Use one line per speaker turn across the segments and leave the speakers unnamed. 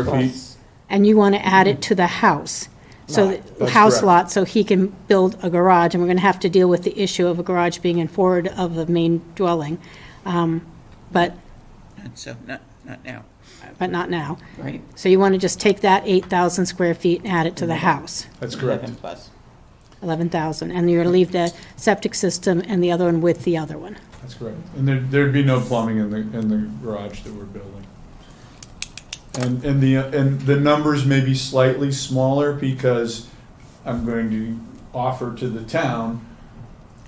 Square feet,
and you want to add it to the house. So,
Lot,
the
Mm-hmm. that's
house
correct.
lot, so he can build a garage, and we're going to have to deal with the issue of a garage being in forward of the main dwelling. Um, But,
So, not, not now,
but not now.
right?
So you want to just take that 8,000 square feet and add it to the
Mm-hmm.
house,
that's correct.
11 plus.
11,000. And you're going to leave the septic system and the other one with the other one.
That's correct. And there, there'd be no plumbing in the, in the garage that we're building. And, and the, and the numbers may be slightly smaller because I'm going to offer to the town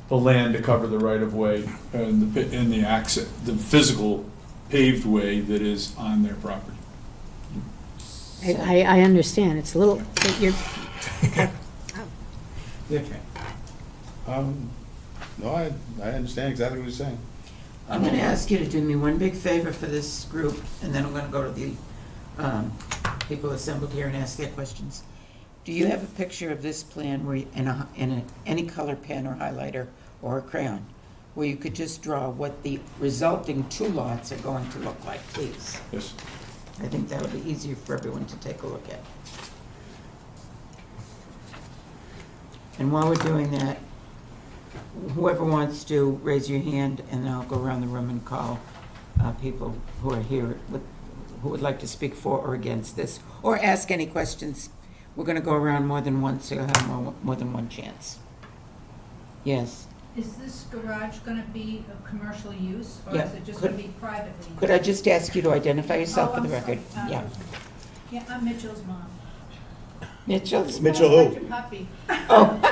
the land to cover the right of way and the, pi- and the access, the physical paved way that is on their property.
I, I I understand, it's a little, you're,
Okay. Um, no, I, I understand exactly what you're saying.
I'm gonna ask you to do me one big favor for this group, and then I'm gonna go to the, um, people assembled here and ask their questions. Do you have a picture of this plan where, you- in a, in a, any color pen or highlighter or a crayon, where you could just draw what the resulting two lots are going to look like, please?
Yes.
I think that would be easier for everyone to take a look at. And while we're doing that, whoever wants to, raise your hand, and I'll go around the room and call uh, people who are here, with- who would like to speak for or against this, or ask any questions. We're going to go around more than once, so you'll have more more than one chance. Yes.
Is this garage going to be of commercial use, or
Yeah,
is it just
could-
going to be privately?
Could I just ask you to identify yourself
Oh,
for the
I'm sorry.
record?
Um,
Yeah.
Yeah, I'm Mitchell's mom.
Mitchell's
Mitchell
Oh, I
who?
like your puppy.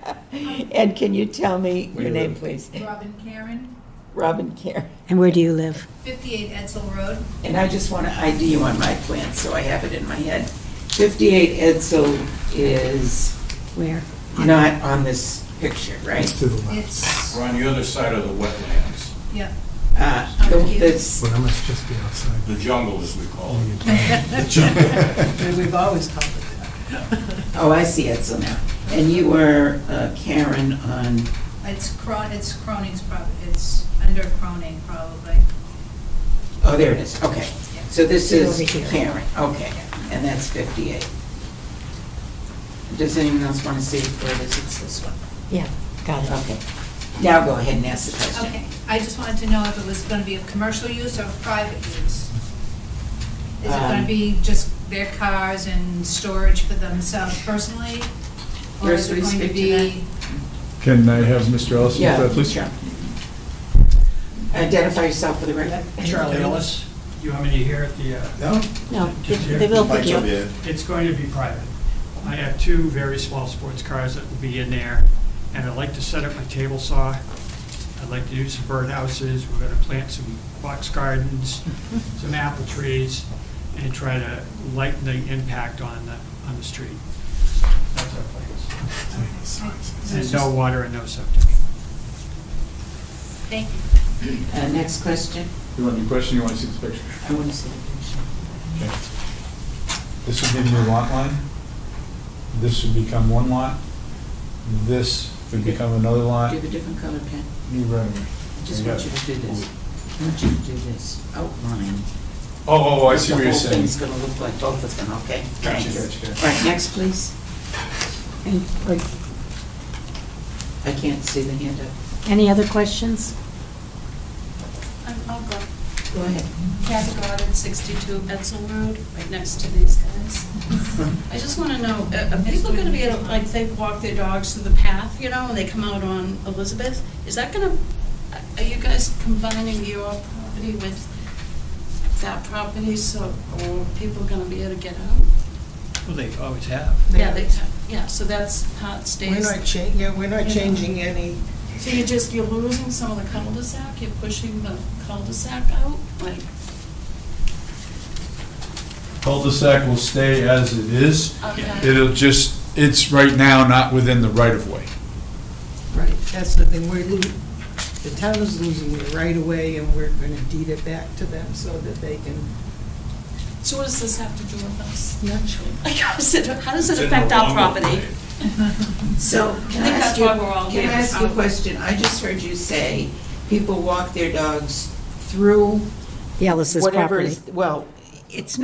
Ed, Oh. can you tell me your name, please?
Robin Karen,
Robin Care.
and where do you live?
58 Edsel Road.
And I just want to ID you on my plan, so I have it in my head. 58 Edsel is
Where?
not on this picture, right?
It's,
We're on the other side of the wetlands,
yeah,
Uh, the- this-
But I must just be outside.
the jungle, as we call it.
Oh, I see Edsel now. And you were uh, Karen on,
it's Cron, it's Croning's property, it's under Croning probably.
oh, there it is, okay. So this
It's
is
over here.
Karen, okay, and that's 58. Does anyone else want to see where this is, this one?
Yeah, got
Okay. Now go ahead and ask the question.
Okay, I just wanted to know if it was going to be of commercial use or of private use. Is it going
Um,
to be just their cars and storage for themselves personally? Or
Yes,
is it
we
going to
speak to
be?
Can I have Mr. Ellison,
Yeah,
please?
sure. Identify yourself for the record.
Charlie Ellis, you want me to hear it? The, uh,
No?
No, they- they will pick you up.
It's going to be private. I have two very small sports cars that will be in there, and I'd like to set up my table saw. I'd like to do some birdhouses, we're gonna plant some box gardens, some apple trees, and try to lighten the impact on the, on the street. That's our plans. And no water and no septic.
Thank you.
Uh, Next question.
You want the question, you want to see the picture?
I want to see the picture.
Okay. This would be your lot line. This would become one lot. This would become another lot.
Do you have a different color pen?
New revenue.
I just
Yeah.
want you to do this. I want you to do this outline.
Oh, oh, I see what you're saying.
The whole thing's going to look like both of them, okay?
Gotcha,
Thanks.
gotcha, gotcha.
All right, next, please. And, like, I can't see the hand up.
Any other questions?
Um, I'll go.
Go ahead.
Kathy Goddard, 62 Edsel Road, right next to these guys. I just want to know, uh, are people going to be, able- like, they walk their dogs through the path, you know, and they come out on Elizabeth? Is that going to, are you guys combining your property with that property, so, or people going to be able to get out?
Well, they always have.
Yeah, they, yeah, so that's how it
We're
stays.
not changing, yeah, we're not changing any,
So you're just, you're losing some of the cul-de-sac, you're pushing the cul-de-sac out, like,
Cul-de-sac will stay as it is.
okay.
It'll just, it's right now not within the right of way.
right, that's the thing, we're, lo- the town is losing the right of way, and we're gonna deed it back to them so that they can.
So what does this have to do with us?
Not sure.
How does it, how does
It's
it
in
affect
the
our
longer
property?
way.
So, can
I
I
think
ask
that's
you,
why we're all
can
here.
I ask you a question? I just heard you say people walk their dogs through
Yeah, this is
whatever
property.
is, well, it's